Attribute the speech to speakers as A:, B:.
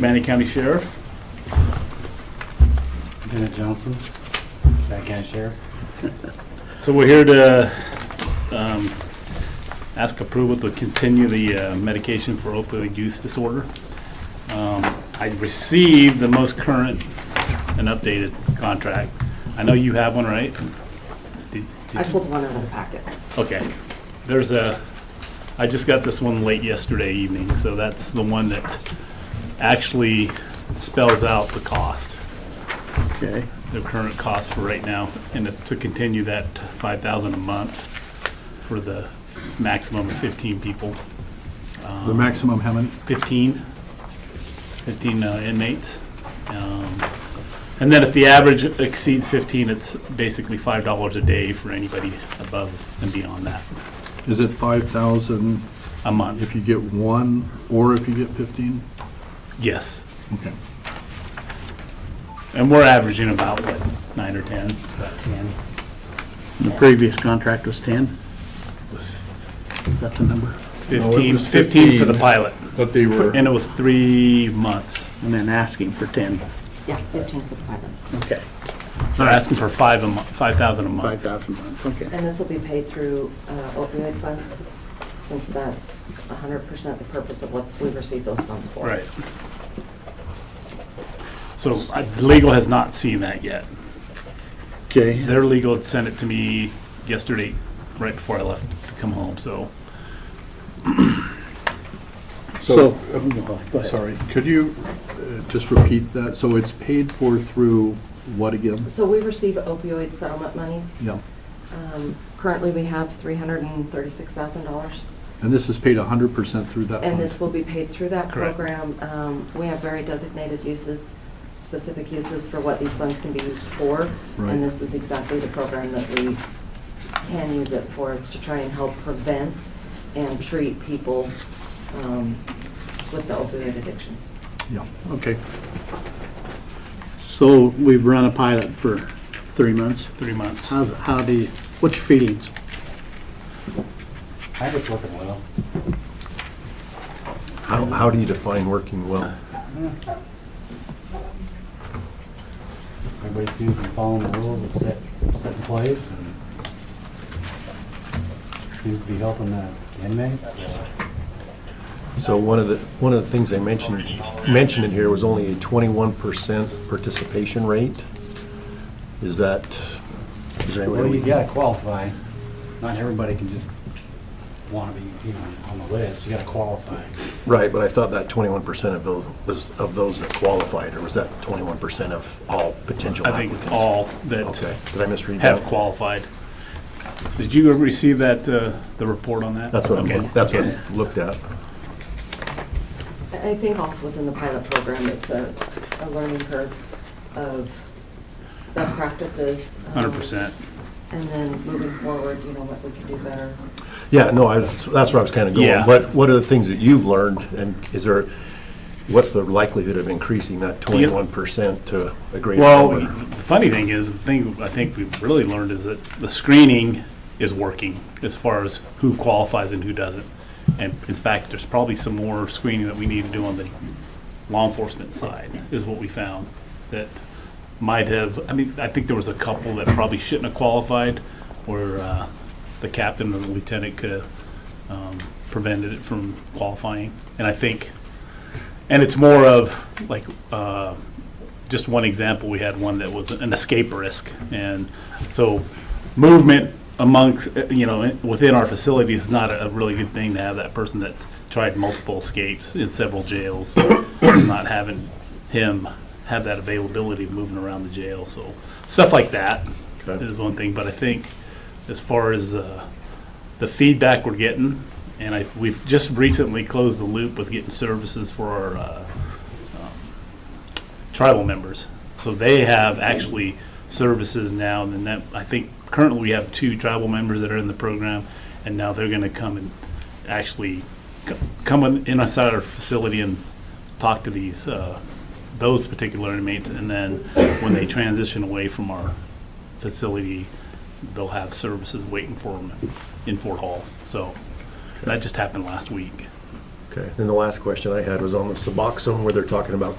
A: Manny County Sheriff.
B: Lieutenant Johnson, Bad County Sheriff.
A: So we're here to um, ask approval to continue the uh, medication for opioid use disorder. Um, I received the most current and updated contract. I know you have one, right? Did- did
C: I
A: you-
C: pulled one out of the packet.
A: Okay. There's a, I just got this one late yesterday evening, so that's the one that actually spells out the cost.
D: Okay,
A: the current cost for right now, and to continue that five thousand a month for the maximum of fifteen people,
D: the maximum, how many?
A: fifteen, fifteen uh, inmates. Um, And then if the average exceeds fifteen, it's basically five dollars a day for anybody above and beyond that,
D: Is it 5,000
A: a month,
D: if you get one, or if you get 15?
A: yes.
D: Okay.
A: And we're averaging about, what, nine or ten? But
B: Ten.
E: The previous contract was 10,
A: it was
E: is that the number?
A: Fifteen,
D: was
A: fifteen for the
D: 15.
A: pilot,
D: But they were,
A: and it was three months.
E: And then asking for 10,
C: Yeah, 15 for the pilot.
E: okay.
A: They're asking for five a month, five thousand a month.
E: 5,000 a month, okay.
C: And this will be paid through uh, opioid funds, since that's 100% the purpose of what we receive those funds for.
A: Right. So I- legal has not seen that yet.
E: Okay,
A: Their legal had sent it to me yesterday, right before I left to come home, so.
E: so, Oh,
D: so,
E: go ahead.
D: uh, sorry, could you uh, just repeat that? So it's paid for through what again?
C: So we receive opioid settlement monies.
D: Yeah,
C: Um, Currently, we have $336,000,
D: and this is paid 100% through that
C: and this
D: fund?
C: will be paid through that
A: Correct.
C: program. Um, We have very designated uses, specific uses for what these funds can be used for.
D: Right.
C: And this is exactly the program that we can use it for. It's to try and help prevent and treat people um, with the opioid addictions.
D: Yeah, okay.
E: so we've run a pilot for three months.
A: Three months.
E: How's, how do you, what's your feelings?
B: I think it's working well.
F: How, how do you define working well?
B: Everybody seems to be following the rules that's set, set in place and seems to be helping the inmates. Uh,
F: So one of the, one of the things they mentioned, mentioned in here was only a twenty-one percent participation rate. Is that, is there any way?
B: Well, you
F: we-
B: gotta qualify. Not everybody can just wanna be, you know, on the list. You gotta qualify.
F: Right, but I thought that twenty-one percent of those, was of those that qualified, or was that twenty-one percent of all potential
A: I think it's
F: applicants?
A: all
F: Okay,
A: that
F: did I misread that?
A: have qualified. Did you receive that, uh, the report on that?
F: That's what
A: Okay.
F: I'm, that's what
A: Okay.
F: I looked at.
C: I I think also within the pilot program, it's a, a learning curve of best practices. um,
A: Hundred percent.
C: And then moving forward, you know, what we can do better.
F: Yeah, no, I, that's where I was kind of
A: Yeah.
F: going. What, what are the things that you've learned, and is there, what's the likelihood of increasing that twenty-one percent to a greater
A: Well,
F: number?
A: the funny thing is, the thing I think we've really learned is that the screening is working as far as who qualifies and who doesn't. And in fact, there's probably some more screening that we need to do on the law enforcement side, is what we found. That might have, I mean, I think there was a couple that probably shouldn't have qualified, where uh, the captain or the lieutenant could have um, prevented it from qualifying. And I think, and it's more of like, uh, just one example, we had one that was an escape risk. And so movement amongst, uh, you know, in- within our facility is not a a really good thing to have that person that tried multiple escapes in several jails, not having him have that availability of moving around the jail. So stuff like that
F: Okay.
A: is one thing. But I think as far as uh, the feedback we're getting, and I, we've just recently closed the loop with getting services for our uh, tribal members. So they have actually services now, and then that, I think currently we have two tribal members that are in the program, and now they're gonna come and actually c- come in- inside our facility and talk to these, uh, those particular inmates, and then when they transition away from our facility, they'll have services waiting for them in Fort Hall. So that just happened last week.
F: Okay, and the last question I had was on the Suboxone, where they're talking about